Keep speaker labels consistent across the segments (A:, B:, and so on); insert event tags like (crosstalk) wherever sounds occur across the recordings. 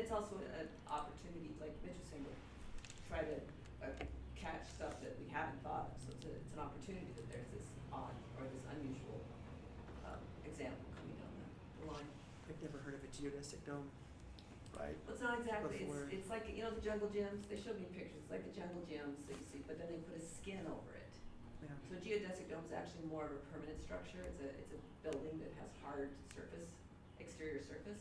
A: it's also an opportunity, like Mitch was saying, to try to uh, catch stuff that we haven't thought of. So it's, a, it's an opportunity that there's this odd or this unusual um, example coming down the- the line.
B: I've never heard of a geodesic dome.
C: right?
A: Well, it's not exactly,
B: Before-
A: it's, it's like, you know, the jungle gyms, they showed me pictures, it's like the jungle gyms that you see, but then they put a skin over it.
B: Yeah.
A: So geodesic dome is actually more of a permanent structure, it's a, it's a building that has hard surface, exterior surface.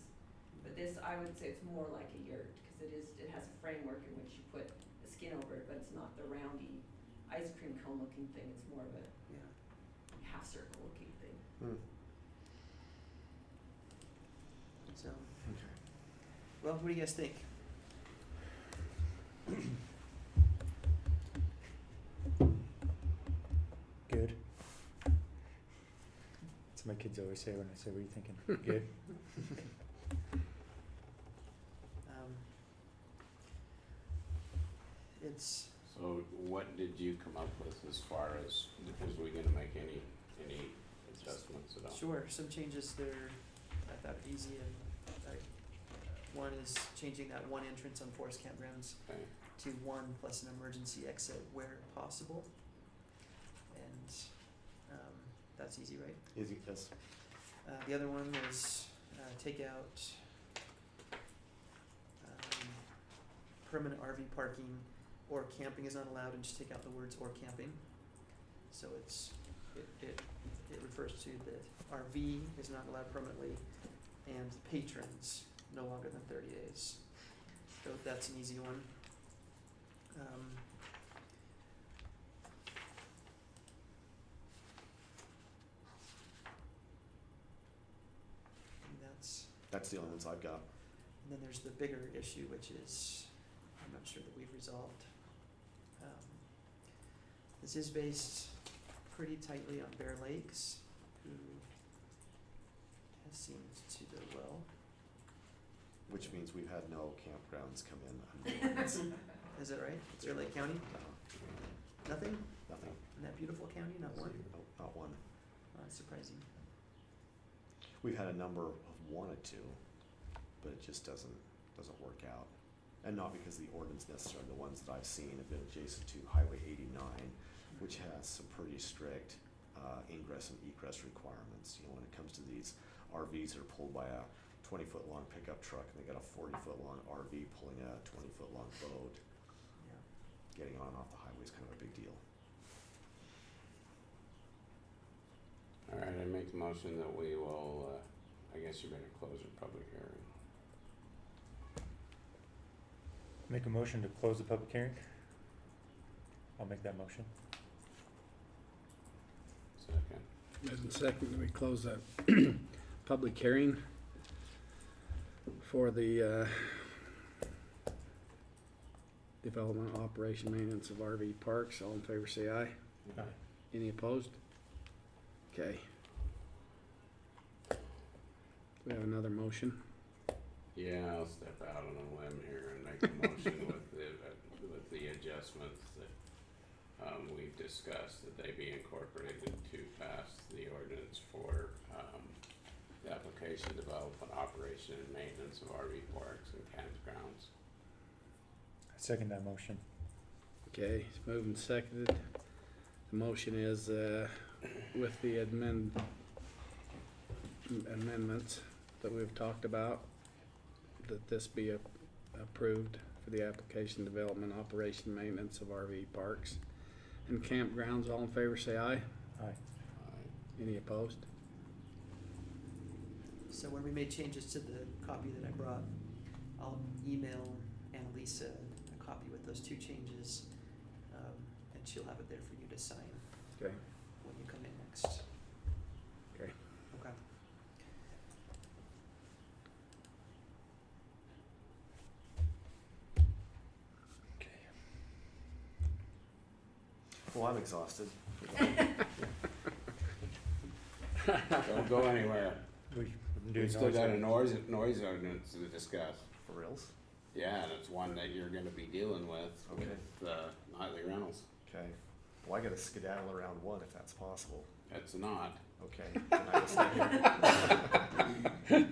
A: But this, I would say it's more like a yurt, cause it is, it has a framework in which you put a skin over it, but it's not the roundy ice cream cone looking thing, it's more of a
B: Yeah.
A: half circle looking thing.
C: Hmm.
B: So,
C: Okay.
B: well, what do you guys think?
D: Good. That's what my kids always say when I say, What are you
C: (laughs)
D: thinking? Good.
B: Um, it's
E: So what did you come up with as far as, was we gonna make any, any adjustments at all?
B: sure some changes there. I thought easy and like one is changing that one entrance on forest campgrounds
E: Okay.
B: to one plus an emergency exit where possible. And um, that's easy, right?
C: Easy, yes.
B: Uh, the other one was uh, take out um, permanent RV parking or camping is not allowed, and just take out the words or camping. So it's it it, it refers to that RV is not allowed permanently, and patrons no longer than thirty days. So that's an easy one. Um, and that's
C: That's the only ones I've got.
B: And then there's the bigger issue, which is, I'm not sure that we've resolved. Um, This is based pretty tightly on Bear Lakes, who has seemed to do well.
C: Which means we've had no campgrounds come in.
D: (laughs)
C: under the ordinance.
B: Is that right? Bear Lake County?
C: No,
B: Nothing?
C: Nothing.
B: In that beautiful county, not one?
C: Nope, not one.
B: Uh, Surprising.
C: We've had a number of wanted to, but it just doesn't, doesn't work out. And not because the ordinance necessarily, the ones that I've seen have been adjacent to Highway eighty-nine, which has some pretty strict uh, ingress and egress requirements. You know, when it comes to these RVs that are pulled by a twenty-foot long pickup truck and they got a forty-foot long RV pulling a twenty-foot long boat,
B: Yeah.
C: getting on and off the highway is kind of a big deal.
E: All right, I make a motion that we will, uh, I guess you better close the public hearing.
D: Make a motion to close the public hearing. I'll make that motion.
E: Second.
F: As a second, we close the public hearing for the uh, development, operation, maintenance of RV parks. All in favor, say aye. Any opposed? Okay. We have another motion.
E: Yeah, I'll step out on a limb here and make a
F: (laughs)
E: motion with the, with the adjustments that, um, we've discussed, that they be incorporated to pass the ordinance for, um, the application, development, operation, and maintenance of RV parks and campgrounds.
D: I second that motion.
F: Okay, it's moved and seconded. The motion is uh, with the amend- amendments that we've talked about, that this be a- approved for the application, development, operation, maintenance of RV parks and campgrounds. All in favor, say aye.
D: Aye.
F: Any opposed?
B: So when we made changes to the copy that I brought, I'll email Annalisa a copy with those two changes, um, and she'll have it there for you to sign
F: Okay.
B: when you come in next.
F: Okay.
B: Okay.
D: Okay.
C: Well, I'm exhausted.
D: (laughs)
E: Don't go anywhere.
D: We've been doing
E: We've still got a
D: noise.
E: noise, noise ordinance to discuss.
C: For reals?
E: Yeah, and it's one that you're gonna be dealing with,
C: Okay.
E: with, uh, nightly rentals.
C: Okay. Well, I got to skedaddle around one if that's possible.
E: That's not.
C: Okay. Then I will stay here.